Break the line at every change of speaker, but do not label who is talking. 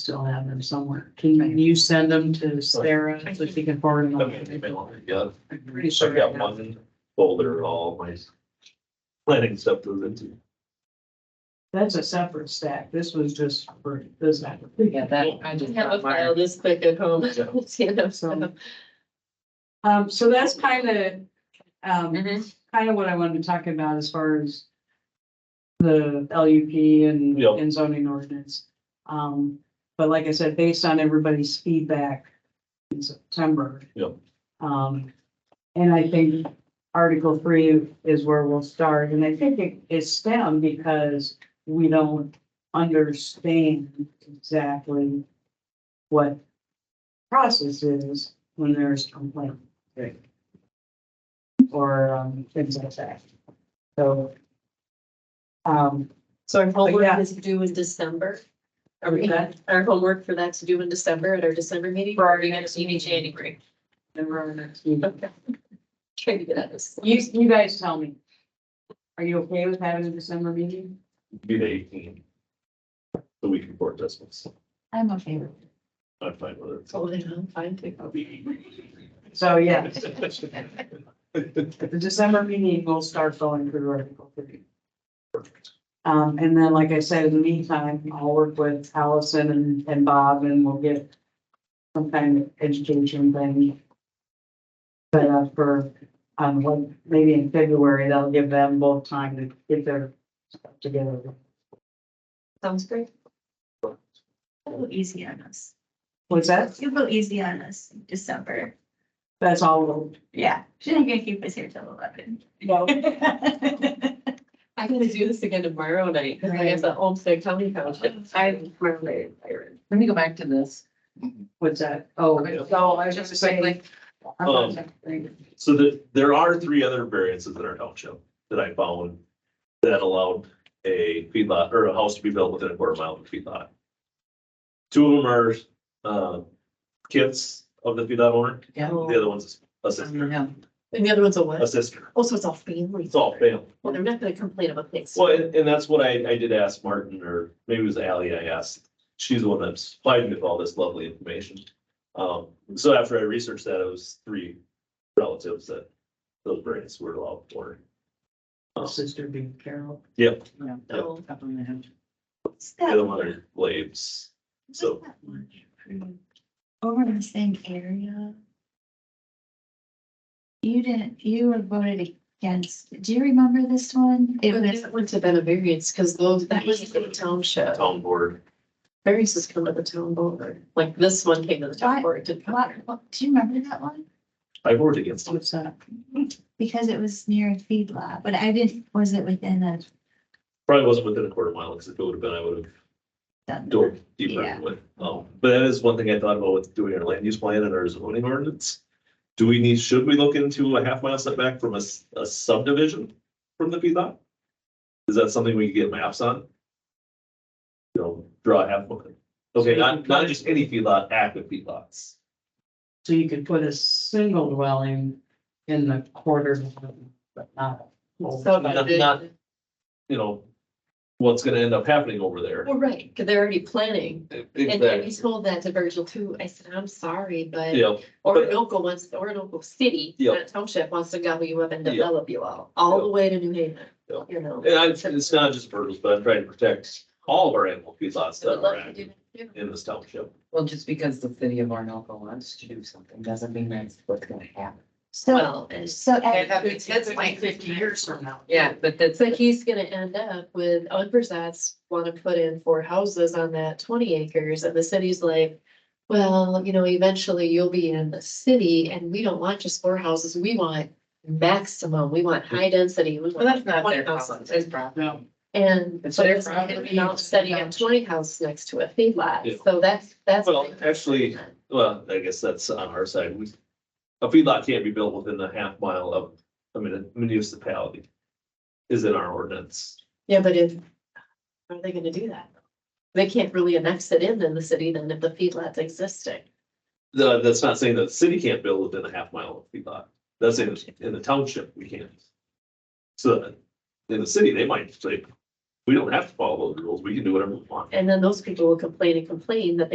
still have them somewhere. Can you send them to Sarah so she can forward them?
I mean,
on?
they may not be good.
I'm pretty
So
sure.
I've got
I have.
one folder, all my planning stuff goes into.
That's a separate stack. This was just for this. app.
Yeah, that, I just.
Have a
got mine.
file this quick at home.
Yeah.
You know,
So-
so.
Um, so that's kind of,
Mm-hmm.
um,
Mm-hmm.
Mhm.
kind of what I wanted to talk about as far as the LUP and,
Yeah.
and zoning ordinance. Um, but like I said, based on everybody's feedback in September.
Yeah.
Um, and I think Article three is where we'll start, and I think it is stem because we don't understand exactly what process is when there's complaint.
Right.
Or, um, things like that. So. Um,
So our
yeah.
homework is due in December. Are we,
Okay.
our homework for that's due in December at our December meeting?
For our
Or are we gonna
next
meet in
meeting.
January?
never our next meeting.
Okay. Trying to get at this.
You, you guys tell me. Are you okay with having a December meeting?
Be the eighteen. The week before Christmas.
I'm okay with
I'm fine with
Totally, I'm fine too.
So, yeah,
it.
the December meeting, we'll start going through Article three. Um, and then, like I said, in the meantime, I'll work with Allison and, and Bob and we'll get some kind of education thing set up for, um, like, maybe in February, that'll give them both time to get their stuff together.
Sounds great. A little easy on us.
What's that?
It's a little easy on us in December.
That's all.
Yeah, she's not gonna keep us here till eleven.
No.
I gotta do this again tomorrow night, because I have the homestead county township. I'm. really tired.
Let me go back to this.
What's that? Oh, so I was just saying. I'm not saying-
So that, there are three other variances in our township that I found that allowed a feedlot or a house to be built within a quarter mile of a feedlot. Two of them are, uh, kids of the feedlot owner,
Yeah.
the other one's a sister,
Yeah.
And the other one's a
a
what?
sister,
Oh, so it's all family.
it's all family.
Well, they're not gonna complain about things.
Well, and, and that's what I, I did ask Martin, or maybe it was Ally I asked. She's the one that supplied me with all this lovely information. Um, so after I researched that, it was three relatives that those variants were allowed for.
Sister being Carol.
Yep,
No.
Up on the hill.
What's
the
that
other
one?
one are Glades.
What's
So
that one? Over in the same area. You didn't, you were voted against. Do you remember this one? It
But
was,
that wouldn't have been a variance, because those, that was the township.
town board,
Variances come to the town board, like this one came to the town
What?
board, it did come.
what, what- do you remember that one?
I voted against them.
What's that?
Because it was near a feedlot, but I didn't, was it within a?
Probably wasn't within a quarter mile, because if it would have been, I would have dove deeper
Yeah.
with. Um, but that is one thing I thought about with doing our land use plan and our zoning ordinance. Do we need, should we look into a half mile setback from a, s- a subdivision from the feedlot? Is that something we could get maps on? You know, draw a half mile. Okay, not, not just any feedlot, active feedlots.
So you could put a single dwelling in the quarter, but not. a whole.
So
Oh, Not-
that they-
not- You know, what's gonna end up happening over there.
Well, right, because they're already planning. And and we
Exactly.
told that to Virgil too. I said, I'm sorry, but
Yeah,
Orinoco wants, Orinoco City,
Yeah.
not township, wants to gobble you up and
Yeah.
develop you all, all the way to New Haven.
Yeah.
You know.
and I, it's not just birds, but I'm trying to protect all of our animal feedlots
I would
that are
love to do
active
that too.
in this township.
Well, just because the city of Orinoco wants to do something doesn't mean that's what's gonna happen.
So,
Well, and
so.
And that-
It's
that's like
fifty years from now.
but that's.
so he's gonna end up with, Unversat's wanna put in four houses on that twenty acres and the city's like. Well, you know, eventually you'll be in the city and we don't want just four houses. We want maximum. We want high density. We
Well,
want
that's not their
20
problem,
houses.
it's his problem.
No,
And
It's
so
their
it's gonna
property.
be now setting up twenty houses next to a
Yeah.
feedlot, so that's, that's.
Well, actually- Well, I guess that's on our side. We, a feedlot can't be built within a half mile of, I mean, a municipality is in our ordinance.
Yeah, but if, how are they gonna do that? They can't really annex it in in the city then if the feedlot's existing.
The, that's not saying that the city can't build within a half mile of feedlot. That's in, in the township, we can't. So in the city, they might say, we don't have to follow those rules. We can do whatever we want.
And then those people will complain and complain that